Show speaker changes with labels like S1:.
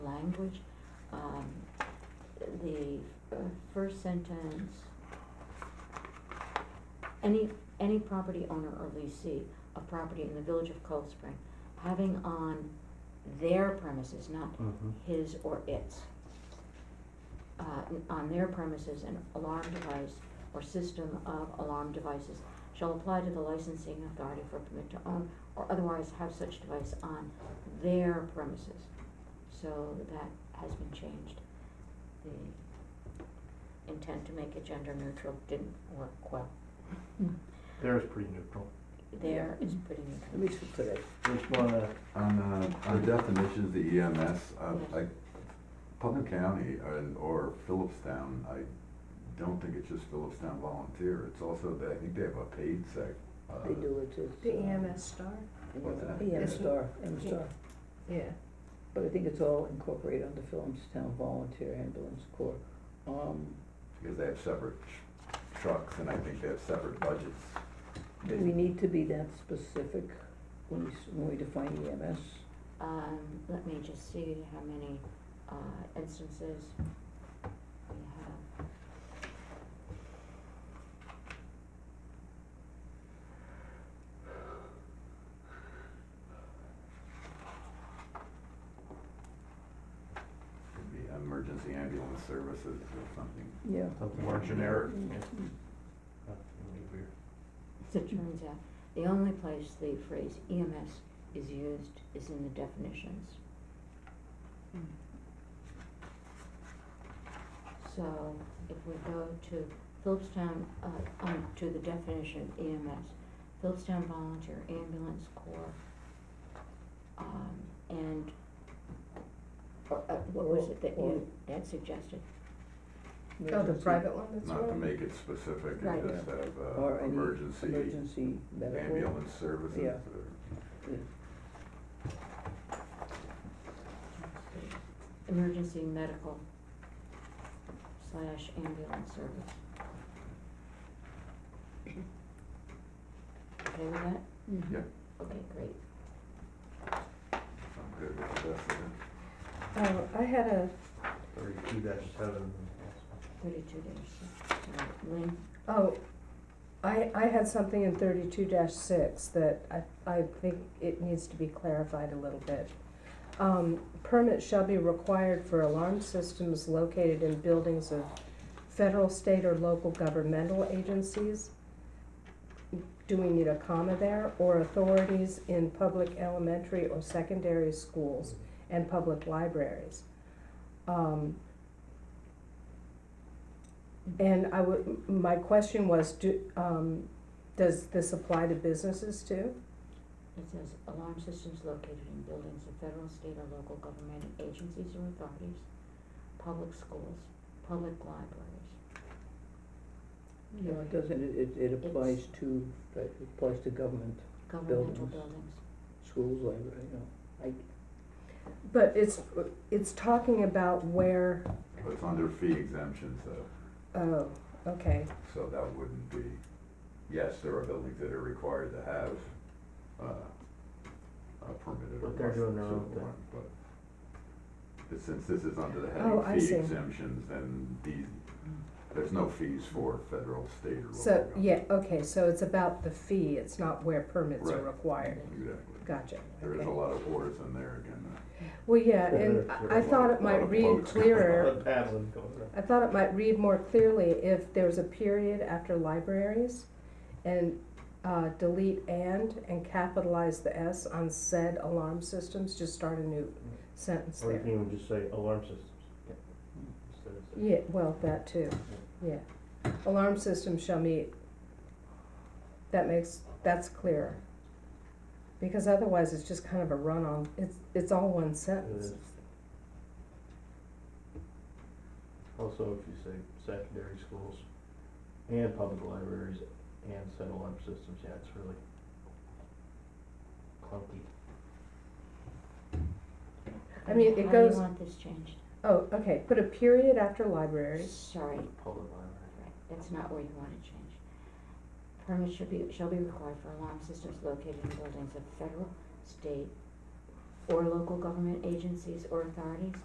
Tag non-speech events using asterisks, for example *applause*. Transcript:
S1: language. Um, the uh, first sentence. Any, any property owner or leasee of property in the village of Cold Spring having on their premises, not
S2: Mhm.
S1: his or its, uh, n- on their premises, an alarm device or system of alarm devices shall apply to the licensing authority for permit to own or otherwise have such device on their premises. So that has been changed. The intent to make it gender neutral didn't work well.
S3: Mm.
S2: There is pretty neutral.
S1: There is pretty neutral.
S3: At least for today.
S2: Just wanna,
S4: On the, on the definitions, the EMS, uh,
S1: Yes.
S4: like, Putnam County uh, or Phillipstown, I don't think it's just Phillipstown volunteer, it's also, that I think they have a paid sec. uh,
S3: They do it to. uh,
S5: The E EMS star,
S4: What's that?
S3: EMS star, EMS
S5: E Yeah.
S3: star.
S5: yeah.
S3: But I think it's all incorporated under Town Volunteer Ambulance Corps. Um,
S4: Because they have separate tr- trucks and I think they have separate budgets.
S3: do we need to be that specific when we, s- when we define E EMS?
S1: Um, let me just see how many, uh, instances we have.
S4: Could be emergency ambulance services or something.
S3: Yeah.
S2: something more
S5: Oh,
S2: generic.
S3: Mm,
S5: Mm-hmm.
S2: yeah.
S3: mm.
S2: Not really weird.
S1: As it turns out, the only place the phrase EMS is used is in the definitions. So if we go to Phillipstown, uh, um, to the definition of EMS, Phillipstown Volunteer Ambulance Corps, um, and, or, uh, what was it that you, that suggested?
S5: Oh, the
S3: Emergency
S5: private one that's
S4: Not to
S5: running?
S4: make it specific,
S1: Right.
S4: it just have,
S3: Or
S4: uh,
S3: any
S4: emergency
S3: Emergency medical.
S4: ambulance services
S3: Yeah.
S4: or.
S1: Emergency medical slash ambulance service. Okay with that?
S3: Mhm.
S4: Yeah.
S1: Okay, great.
S4: I'm good with the rest of it.
S5: Oh, I had a,
S2: Thirty-two dash seven.
S1: Thirty-two days. Alright, Lynn,
S5: oh, I, I had something in thirty-two six that I, I think it needs to be clarified a little bit. Um, permits shall be required for alarm systems located in buildings of federal, state, or local governmental agencies. Do we need a comma there, or authorities in public elementary or secondary schools and public libraries? Um, And I would, my question was, do, um, does this apply to businesses too?
S1: it says alarm systems located in buildings of federal, state, or local government agencies or authorities, public schools, public libraries.
S3: No, it doesn't, it, it- it applies to, it applies to government,
S1: Governmental
S3: Buildings.
S1: buildings.
S3: schools, library, you know.
S5: But it's, it's talking about where,
S4: But it's under fee exemption, so.
S5: oh, okay,
S4: So that wouldn't be, yes, there are buildings that are required to have, uh, a permitted or
S2: But they're doing their own
S4: licensed
S2: thing.
S4: one, but. But since this is under the
S5: Oh, I
S4: heading fee
S5: see.
S4: exemptions, then these, there's no fees for federal, state or local.
S5: so,
S4: government.
S5: yeah, okay, so it's about the fee, it's not where permits are
S4: Right.
S5: required,
S4: Exactly.
S5: gotcha,
S4: There is a
S5: okay.
S4: lot of orders in there again. uh,
S5: Well, yeah, and I I thought it
S4: *laughs*
S5: might read clearer,
S2: The paddling going up.
S5: I thought it might read more clearly if there's a period after libraries and, uh, delete and and capitalize the S on said alarm systems, just start a new sentence
S2: Or you
S5: there.
S2: can even just say alarm systems. yeah, instead of saying-
S5: Yeah, well, that too, yeah. Alarm system shall meet, that makes, that's clearer. Because otherwise, it's just kind of a run on, it's, it's all one sentence.
S2: It Also, if you say secondary schools and public libraries and said alarm systems, yeah, it's really clunky.
S5: I mean, it
S1: How do
S5: goes-
S1: you want this changed?
S5: Oh, okay, put a period after libraries,
S1: Sorry,
S2: Public library.
S1: Right, that's not where you want it changed. Permits should be, shall be required for alarm systems located in buildings of federal, state, or local government agencies or authorities,